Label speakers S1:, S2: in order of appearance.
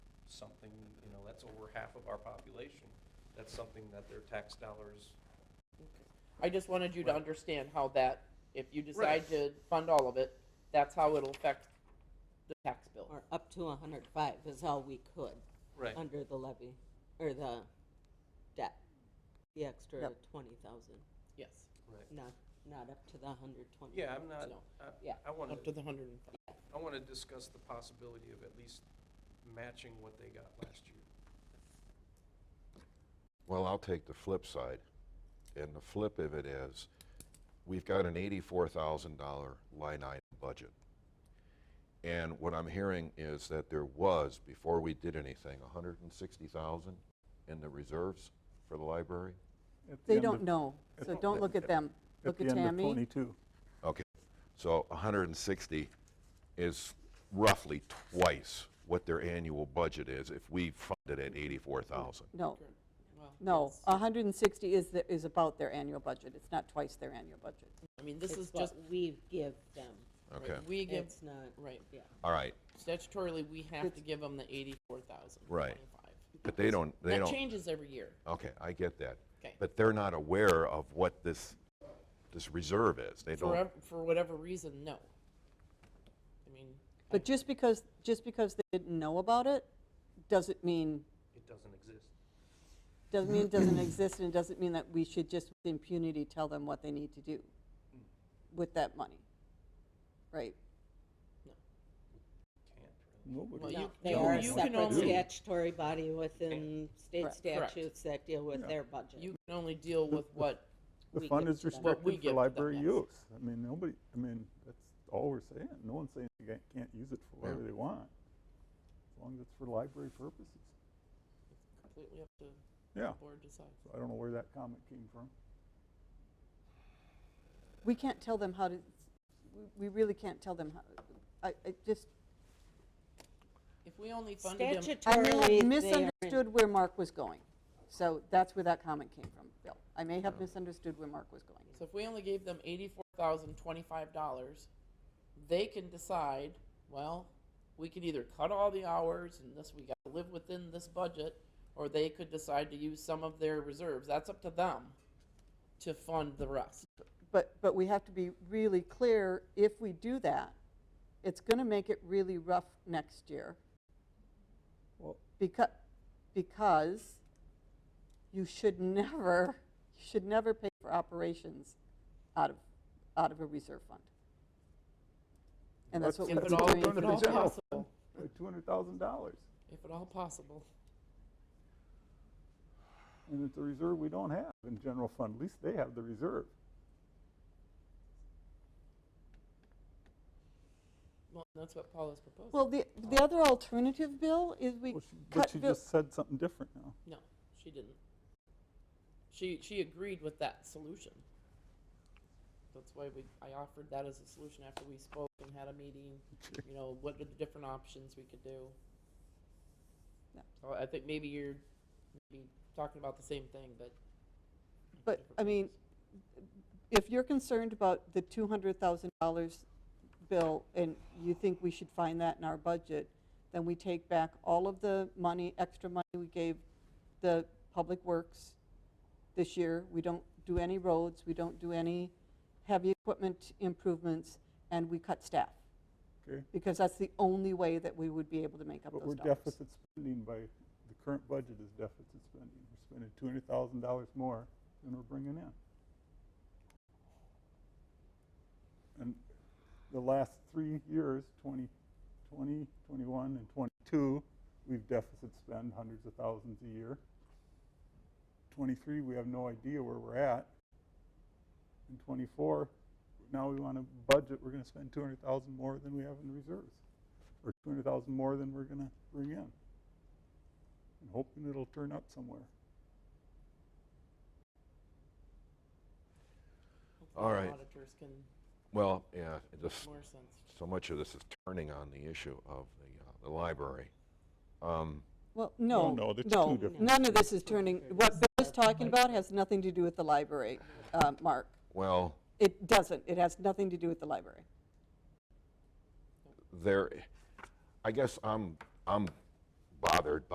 S1: something, you know, that's over half of our population. That's something that their tax dollars,
S2: I just wanted you to
S1: Right.
S2: understand how that, if you
S1: Right.
S2: decide to fund all of it, that's how it'll affect the tax bill.
S3: Or up to a hundred five is all we could,
S1: right,
S3: under the levy, or the debt. The extra
S2: Yep.
S3: twenty thousand,
S2: Yes,
S1: right.
S3: not, not up to the hundred twenty.
S1: Yeah, I'm not,
S2: No.
S1: I-
S3: Yeah.
S1: I want
S2: up to
S1: to,
S2: the hundred and five.
S1: I want to discuss the possibility of at least matching what they got last year.
S4: Well, I'll take the flip side. And the flip of it is, we've got an $84,000 line item budget. And what I'm hearing is that there was, before we did anything, 160,000 in the reserves for the library?
S5: At the
S6: They
S5: end
S6: don't
S5: of-
S6: know, so don't look at them. Look at
S5: At the end of
S6: Tammy.
S5: 22.
S4: Okay, so 160 is roughly twice what their annual budget is if we funded at 84,000.
S6: No,
S2: Well,
S6: no, 160 is, the- is about their annual budget. It's not twice their annual budget.
S2: I mean, this
S3: It's
S2: is
S3: what
S2: just,
S3: we give them,
S4: Okay,
S2: we give,
S3: it's not,
S2: right,
S3: yeah.
S4: all right,
S2: statutorily, we have to give them the eighty-four thousand.
S4: Right. but they don't, they
S2: That
S4: don't.
S2: changes every year.
S4: Okay, I get that.
S2: Okay.
S4: But they're not aware of what this, this reserve is. They
S2: For,
S4: don't,
S2: ev- for whatever reason, no. I mean,
S6: But just because, just because they didn't know about it, doesn't mean,
S1: It doesn't exist.
S6: doesn't mean it doesn't exist, and it doesn't mean that we should just with impunity tell them what they need to do with that money. Right?
S1: Can't really.
S5: Nobody-
S2: Well,
S3: No,
S2: you-
S3: They
S2: you-
S3: are a
S2: you can
S3: separate
S2: only-
S3: statutory body within state
S6: Correct.
S2: Correct.
S3: statutes that deal with
S5: Yeah.
S3: their budget.
S2: you can only deal with what,
S5: The
S3: we
S5: fund
S3: give
S5: is
S3: to them.
S2: What we give
S5: restricted
S2: to
S5: for
S2: them,
S5: library
S2: yes.
S5: use. I mean, nobody, I mean, that's all we're saying. No one's saying they can't- can't use it for whatever they want, as long as it's for library purposes.
S2: completely up to
S5: Yeah,
S2: the board decides.
S5: so I don't know where that comment came from.
S6: We can't tell them how to, we- we really can't tell them how, I, I just,
S2: If we only funded them.
S6: I
S3: Statutorily,
S6: may
S3: they are
S6: have
S3: in-
S6: misunderstood where Mark was going. So that's where that comment came from, Bill. I may
S2: Oh.
S6: have misunderstood where Mark was going.
S2: So if we only gave them eighty-four thousand twenty-five dollars, they can decide, well, we can either cut all the hours and this, we gotta live within this budget, or they could decide to use some of their reserves, that's up to them to fund the rest.
S6: But, but we have to be really clear, if we do that, it's going to make it really rough next year.
S5: Well-
S6: Because, because you should never, you should never pay for operations out of, out of a reserve fund. And that's what
S2: If
S6: we've
S2: it
S6: been
S2: all-
S6: doing.
S2: if
S6: for
S2: it
S6: the
S2: all
S6: general-
S2: possible.
S5: Two hundred thousand dollars,
S2: If at all possible.
S5: and it's a reserve we don't have in general fund. At least they have the reserve.
S2: Well, that's what Paula's proposing.
S6: Well, the, the other alternative, Bill, is we
S5: Well, she- But
S6: cut
S5: she
S6: Bill.
S5: just said something different now.
S2: No, she didn't. She, she agreed with that solution. That's why we, I offered that as a solution after we spoke and had a meeting, you know, what are the different options we could do?
S6: Yeah.
S2: So I think maybe you're, maybe talking about the same thing, but.
S6: But, I mean, if you're concerned about the $200,000 bill and you think we should find that in our budget, then we take back all of the money, extra money we gave the Public Works this year. We don't do any roads, we don't do any heavy equipment improvements, and we cut staff.
S5: Okay.
S6: Because that's the only way that we would be able to make up
S5: But we're
S6: those dollars.
S5: deficit spending by, the current budget is deficit spending. We're spending two hundred thousand dollars more than we're bringing in. And the last three years, 20, 20, 21, and twenty-two, we've deficit spend hundreds of thousands a year. Twenty-three, we have no idea where we're at. And twenty-four, now we want to budget, we're gonna spend two hundred thousand more than we have in reserves or two hundred thousand more than we're gonna bring in. And hoping it'll turn up somewhere.
S2: hopefully
S4: all
S2: the
S4: right.
S2: Auditors can
S4: well, yeah, it
S2: make
S4: just,
S2: more sense.
S4: so much of this is turning on the issue of the, uh, the library. Um,
S6: Well, no,
S5: no,
S6: no,
S5: that's two different
S6: none of this is turning, what Bill is talking about has nothing to do with the library, uh, Mark.
S4: Well,
S6: It doesn't, it has nothing to do with the library.
S4: there, I guess I'm, I'm